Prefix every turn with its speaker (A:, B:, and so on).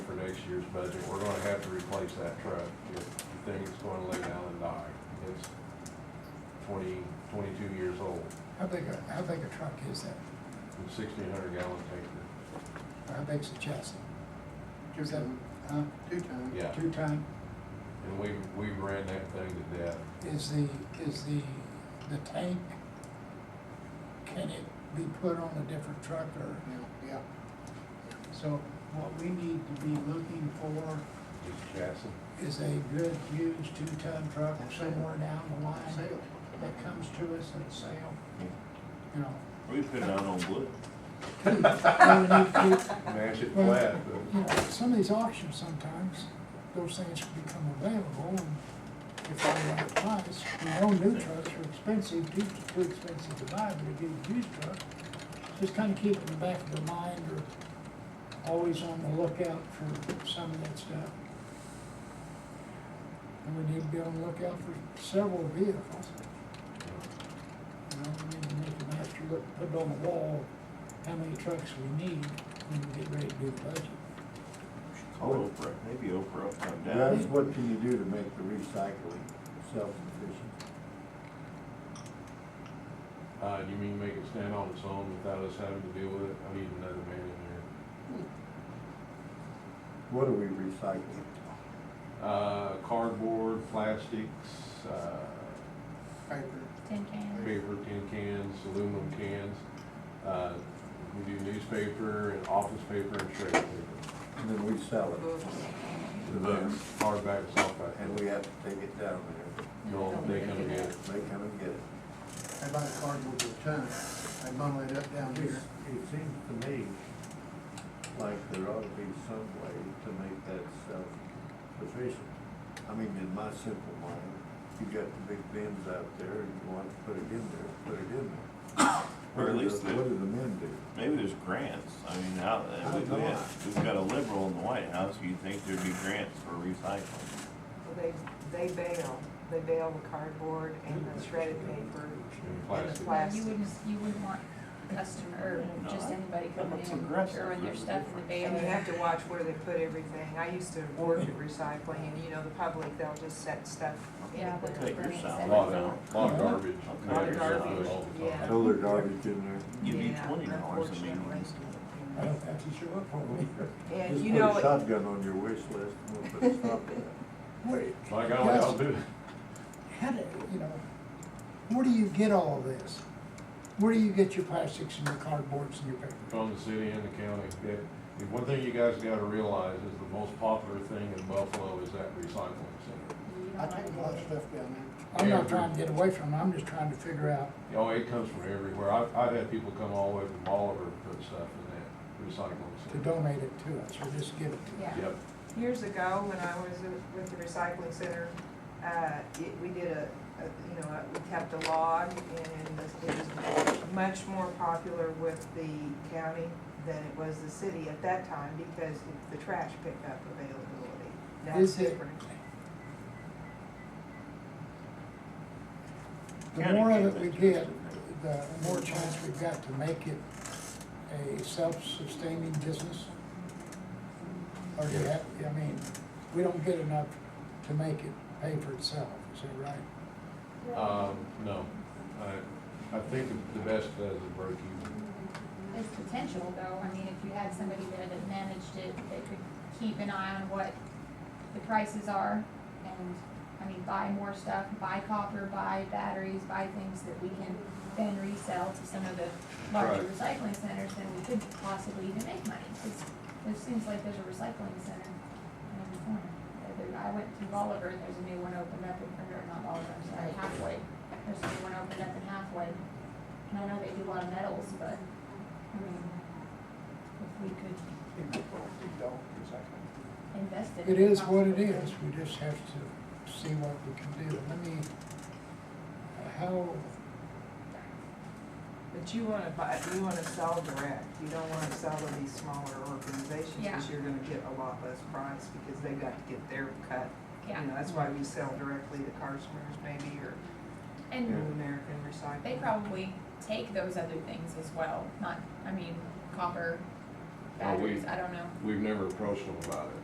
A: next year's budget, we're gonna have to replace that truck if the thing is gonna lay down and die. It's twenty, twenty-two years old,
B: How big, a- how big a truck is that?
A: it's sixteen hundred gallon tanker.
B: Or How big's the chassis?
C: Two
B: Is that,
C: ton,
B: huh?
C: two ton.
A: Yeah,
B: Two ton?
A: and we, we ran that thing to death.
B: Is the, is the, the tank, can it be put on a different truck or?
C: Yeah,
B: So what we need to be looking for
A: Just chassis,
B: is a good used two-ton truck somewhere down the
C: yeah,
B: line
C: sale.
B: that comes to us at sale, you know.
D: We put it out on wood.
B: We need to-
A: mash it
B: Well,
A: flat,
B: You
A: but
B: know, some of these auctions sometimes, those things can become available and if I want to price, we own new trucks are expensive, too, too expensive to buy, but if you get a used truck, just kind of keep it in the back of your mind or always on the lookout for some of that stuff. And we need to be on the lookout for several vehicles. You know, we need to make a master look, put on the wall, how many trucks we need when we get ready to do the budget.
D: Call Oprah, maybe Oprah will come
E: That's
D: down.
E: what can you do to make the recycling self-sufficient?
A: uh, you mean make it stand on its own without us having to deal with it? I need another man in there.
E: What are we recycling?
A: Uh, cardboard, plastics, uh,
C: Paper.
F: Tin can.
A: paper tin cans, aluminum cans. Uh, we do newspaper and office paper and shredded paper.
E: And then we sell it,
A: The books, hardback,
E: and
A: softback.
E: we have to take it down there.
A: No, they come get it.
E: They come and get it.
C: I buy a cardboard with a ton, I bundle it up down
E: It
C: here.
E: it seems to me like there ought to be some way to make that self-sufficient. I mean, in my simple mind, you got the big bins out there and you want to put it in there, put it in there.
D: Or at
E: What do
D: least
E: the-
D: the-
E: What do the men do?
D: Maybe there's grants. I mean, out,
E: I
D: we,
E: don't
D: we
E: know.
D: have, we've got a liberal in the White House, you'd think there'd be grants for recycling.
G: Well, They, they bail, they bail the cardboard and the shredded paper
A: And
G: and the
A: plastic.
F: You
G: plastic.
F: wouldn't, you wouldn't want customer, or just anybody coming
D: That's
F: in,
D: aggressive.
F: throwing their
D: There's a
F: stuff in the
G: And you have
F: baler.
G: to watch where they put everything. I used to work at recycling and, you know, the public, they'll just set stuff
F: Yeah,
G: in
F: but
G: there.
D: Take your
F: Grants,
A: A
D: salary.
A: lot of, lot of garbage.
D: Okay.
A: man,
G: Garbage,
A: all the
G: yeah.
A: time.
E: Throw their garbage in there.
D: Give you
G: Yeah,
D: twenty dollars a meeting.
B: I don't have to show up for me.
G: And
E: Just
G: you
E: put a
G: know, it-
E: Shotgun on your wish list, and we'll put a stop to that.
B: Wait,
A: Like, I don't know how to do it.
B: how do, you know, where do you get all of this? Where do you get your plastics and your cardboards and your paper?
A: From the city and the county. It- the one thing you guys gotta realize is the most popular thing in Buffalo is that recycling center.
C: I take a lot of stuff down there.
B: I'm not trying to get away from it, I'm just trying to figure out,
A: Oh, it comes from everywhere. I've, I've had people come all the way from Oliver and put stuff in that recycling
B: to
A: center.
B: donate it to us, or just give it to us.
F: Yeah.
A: Yep,
G: years ago, when I was with the recycling center, uh, it, we did a, a, you know, we kept a log and it was much more popular with the county than it was the city at that time because of the trash pickup availability. That's
B: Is it-
G: different.
B: The more of it we get, the more chance we've got to make it a self-sustaining business. Or do you have, I mean, we don't get enough to make it pay for itself, is that right?
A: um, no, I, I think the best does is break even.
F: There's potential though, I mean, if you had somebody there that managed it, that could keep an eye on what the prices are and, I mean, buy more stuff, buy copper, buy batteries, buy things that we can then resell to some of the larger
A: Right.
F: recycling centers, then we could possibly even make money. 'Cause It seems like there's a recycling center in every corner. Uh, there- I went to Oliver and there's a new one opened up in, or not Oliver, I'm sorry, halfway. There's a new one opened up in halfway. And I know they do a lot of metals, but, I mean, if we could invest it.
B: It is what it is, we just have to see what we can do. Let me, how,
G: But you wanna buy, you wanna sell direct, you don't wanna sell to these smaller organizations,
F: Yeah.
G: cause you're gonna get a lot less price, because they've got to get their cut.
F: Yeah,
G: You know, that's why we sell directly to Carsoners maybe, or New
F: and
G: American Recycling.
F: they probably take those other things as well, not, I mean, copper,
A: Well, we-
F: batteries, I don't know.
A: We've never approached them about it.